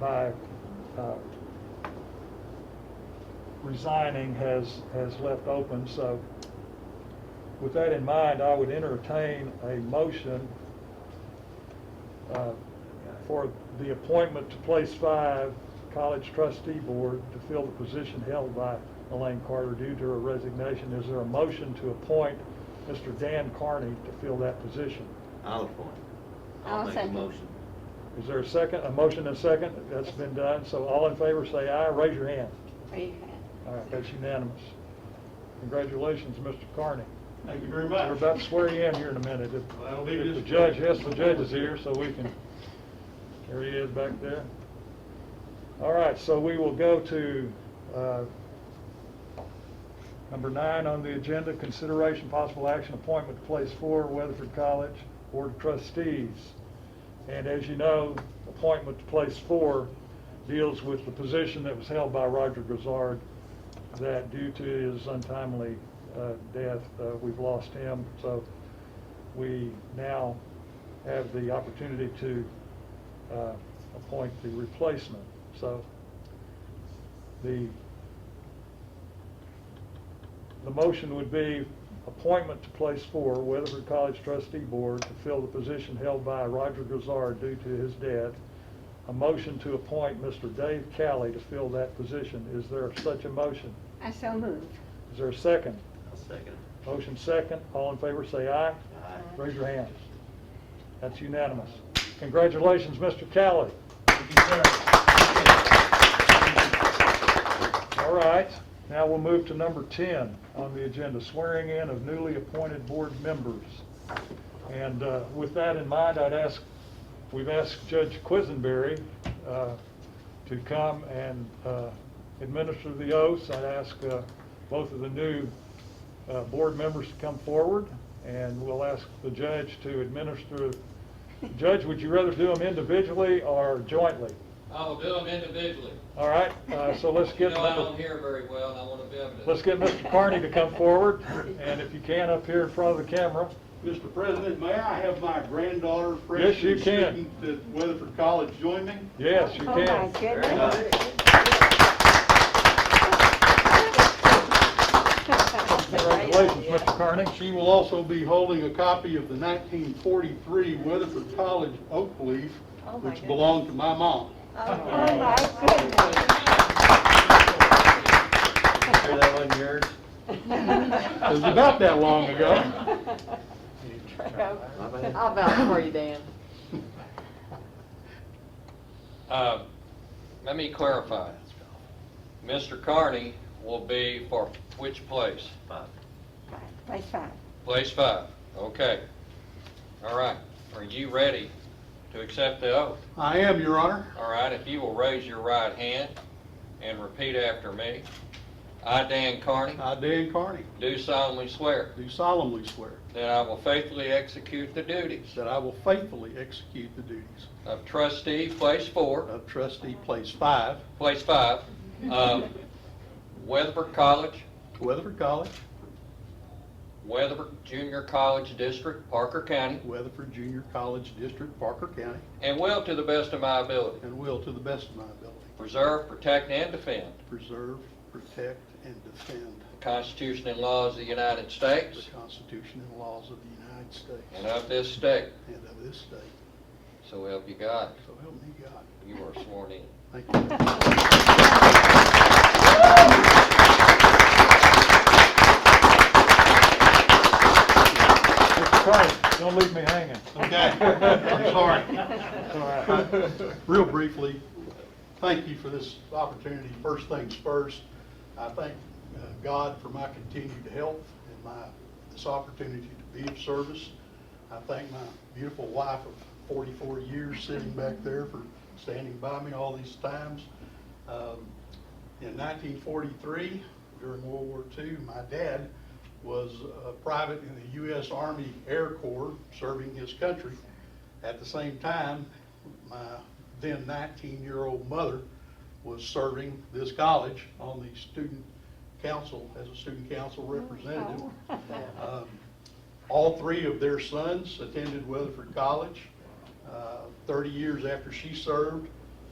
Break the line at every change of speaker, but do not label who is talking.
by uh, resigning has, has left open. So with that in mind, I would entertain a motion uh, for the appointment to place five, College Trustee Board, to fill the position held by Elaine Carter due to her resignation. Is there a motion to appoint Mr. Dan Carney to fill that position?
I'll appoint.
I'll
make a
second.
motion.
Is there a second, a motion and a second? That's been done, so all in favor say aye, raise your hand.
Raise
All right, that's unanimous. Congratulations, Mr. Carney.
Thank you very much.
We're about to swear you in here in a minute. If
Well, that'll be
if the
just-
judge, yes, the judge is here, so we can, there he is back there. All right, so we will go to uh, number nine on the agenda, consideration possible action appointment to place four Weatherford College Board of Trustees. And as you know, appointment to place four deals with the position that was held by Roger Grizzard that due to his untimely uh, death, uh, we've lost him. So we now have the opportunity to uh, appoint the replacement. So the, the motion would be appointment to place four, Weatherford College Trustee Board, to fill the position held by Roger Grizzard due to his death. A motion to appoint Mr. Dave Calley to fill that position. Is there such a motion?
I so move.
Is there a second?
I'll second.
Motion second. All in favor, say aye.
Aye.
Raise your hands. That's unanimous. Congratulations, Mr. Calley.
Thank you,
All right, now we'll move to number 10 on the agenda, swearing in of newly appointed board members. And uh, with that in mind, I'd ask, we've asked Judge Quisenberry uh, to come and uh, administer the oaths. I'd ask uh, both of the new uh, board members to come forward, and we'll ask the judge to administer. Judge, would you rather do them individually or jointly?
I'll do them individually.
All right, uh, so let's
You
get.
know, I
number-
don't hear very well, and I want to be able to.
Let's get Mr. Carney to come forward, and if you can, up here in front of the camera.
Mr. President, may I have my granddaughter,
Yes, you can.
freshman student at Weatherford College, join me?
Yes, you
Oh, my
can.
goodness.
Congratulations, Mr. Carney.
She will also be holding a copy of the 1943 Weatherford College Oak Leaf,
Oh, my
which
goodness.
belonged to my mom.
Oh, my goodness.
Sure that wasn't yours?
It was about that long ago.
My bad.
I'll vouch for you, Dan.
Uh, Let me clarify. Mr. Carney will be for which place?
Five.
Place five.
Place five, okay. All right, are you ready to accept the oath?
I am, Your Honor.
All right, if you will raise your right hand and repeat after me. I, Dan Carney,
I, Dan Carney,
do solemnly swear
do solemnly swear
that I will faithfully execute the duties
that I will faithfully execute the duties
of trustee, place four,
of trustee place five,
Place five, um, Weatherford College,
Weatherford College,
Weatherford Junior College District, Parker County,
Weatherford Junior College District, Parker County,
and will to the best of my ability
and will to the best of my ability
preserve, protect, and defend
preserve, protect, and defend
the Constitution and laws of the United
the
States
Constitution and laws of the United States
and of this state.
and of this state.
So help you God.
So help me God.
You are sworn in.
Thank you.
Mr. Carney, don't leave me hanging.
Okay, I'm sorry.
It's all right.
Real briefly, thank you for this opportunity. First things first, I thank uh, God for my continued health and my, this opportunity to be of service. I thank my beautiful wife of 44 years sitting back there for standing by me all these times. Um, In 1943, during World War II, my dad was a private in the U.S. Army Air Corps, serving his country. At the same time, my then 19-year-old mother was serving this college on the student council, as a student council representative. Um, All three of their sons attended Weatherford College. Uh, 30 years after she served,